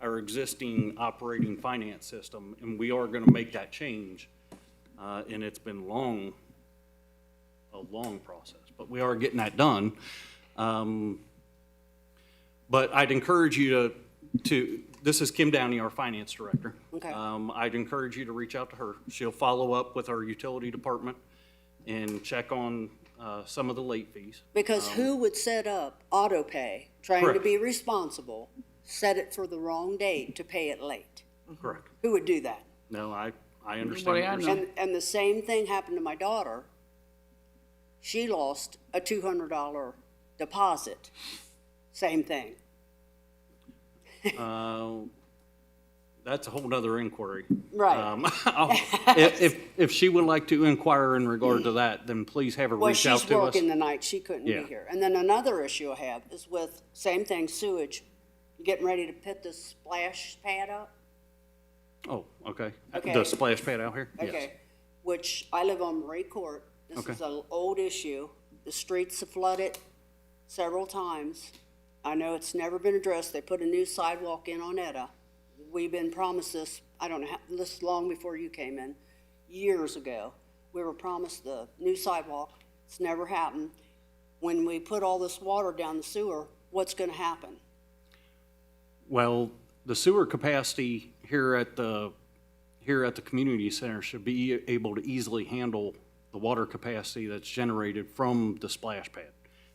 our existing operating finance system, and we are gonna make that change. Uh, and it's been long, a long process, but we are getting that done. Um, but I'd encourage you to, to, this is Kim Downey, our finance director. Okay. Um, I'd encourage you to reach out to her. She'll follow up with our utility department and check on, uh, some of the late fees. Because who would set up auto pay, trying to Um, Correct. be responsible, set it for the wrong date to pay it late? Correct. Who would do that? No, I, I understand. Everybody what I you're know. saying. And, and the same thing happened to my daughter. She lost a two hundred dollar deposit. Same thing. Uh, That's a whole nother inquiry. Right. Um, I'll- If, if- if she would like to inquire in regard to that, then please have her Well, reach out she's to us. working the night, she couldn't be Yeah. here. And then another issue I have is with, same thing, sewage. You Getting ready to put this splash pad up? Oh, okay. Okay. The splash pad out here? Yes. Okay, which I live on Marie Court. This Okay. is an old issue. The streets have flooded several times. I know it's never been addressed. They put a new sidewalk in on Etta. We've been promised this, I don't know, how- this long before you came in, years ago. We were promised the new sidewalk. It's never happened. When we put all this water down the sewer, what's gonna happen? Well, the sewer capacity here at the, here at the community center should be able to easily handle the water capacity that's generated from the splash pad.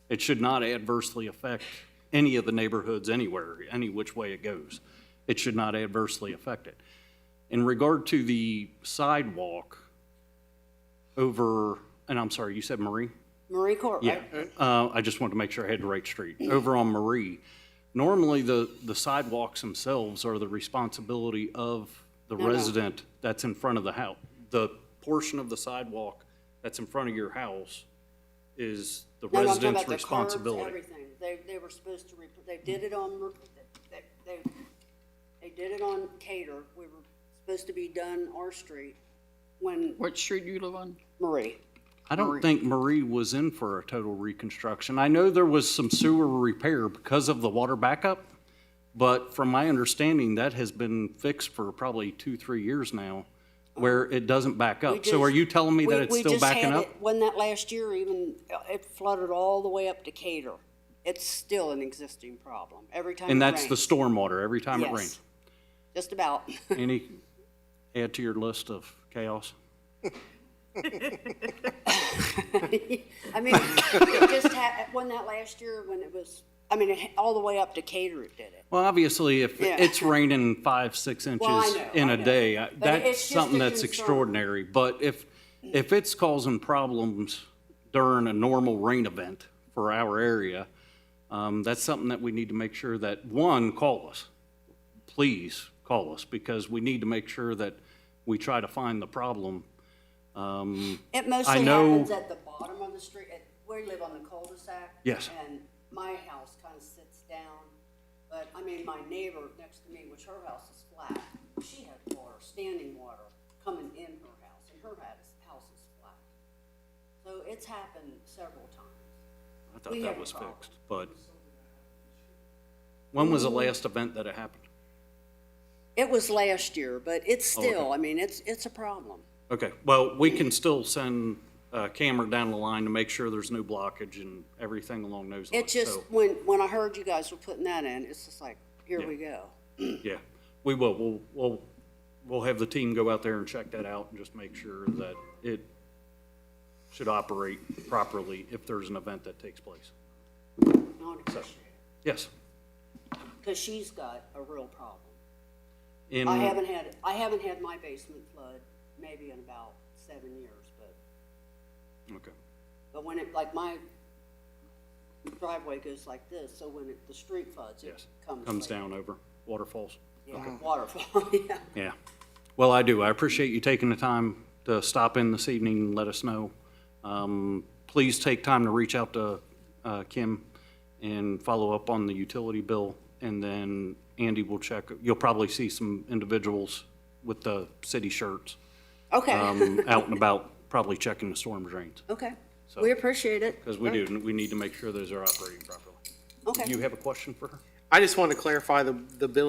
It should not adversely affect any of the neighborhoods anywhere, any which way it goes. It should not adversely affect it. In regard to the sidewalk over, and I'm sorry, you said Marie? Marie Court, Yeah, right? uh, I just wanted to make sure I had the right street. Over on Marie, normally the, the sidewalks themselves are the responsibility of the no. resident that's in front of the house. The portion of the sidewalk that's in front of your house is the No, no, I'm talking resident's about the curbs, responsibility. Everything, they, they were supposed to, rep- they did it on, re- they, they, they did it on Cater, we were supposed to be done our street when What street you live on? Marie. I don't think Marie was in for a total reconstruction. I know there was some sewer repair because of the water backup, but from my understanding, that has been fixed for probably two, three years now, where it doesn't back We up. So are just- you telling me that we- it's we still just had backing up? it- When that last year even, uh, it flooded all the way up to Cater, it's still an existing problem, every time it And that's the rains. stormwater, every time it Yes. rains. Just about, Any, add to your list of chaos? I mean, it just ha, when that last year, when it was, I mean, it- all the way up to Cater it did it. Well, obviously, if Yeah. it's raining five, six inches know, in I a know. day, I- But that's it's just a something that's concern. extraordinary. But if, if it's causing problems during a normal rain event for our area, um, that's something that we need to make sure that, one, call us. Please call us, because we need to make sure that we try to find the problem. Um, It mostly know- happens at the bottom of the street, at, we live on the cul-de-sac. Yes. And my house kind of sits down, but, I mean, my neighbor next to me, which her house is flat, she had water, standing water, coming in her house, and her house, house is flat. So it's happened several times. I thought We that have a was problem. fixed, but when was the last event that it happened? It was last year, but it's Oh, still, I mean, it's, it's a problem. Okay, well, we can still send a camera down the line to make sure there's no blockage and everything along those lines. It just, So, when, when I heard you guys were putting that in, it's just like, here Yeah. we go. Yeah, we will, we'll, we'll, we'll have the team go out there and check that out and just make sure that it should operate properly if there's an event that takes place. I appreciate Yes. it, because she's got a real problem. in- I haven't had, I haven't had my basement flood maybe in about seven years, but, Okay, but when it, like my driveway goes like this, so when it, the street floods, it yes. comes. Comes like- down over waterfalls. Yeah, waterfall, yeah. Yeah. Well, I do. I appreciate you taking the time to stop in this evening and let us know. Um, Please take time to reach out to uh, Kim and follow up on the utility bill. And then Andy will check. You'll probably see some individuals with the city shirts Okay, um, out and about, probably checking the storm drains. okay. We appreciate it. Because we do, we need to make sure those are operating properly. Okay. Do you have a question for her? I just wanted to clarify the, the billing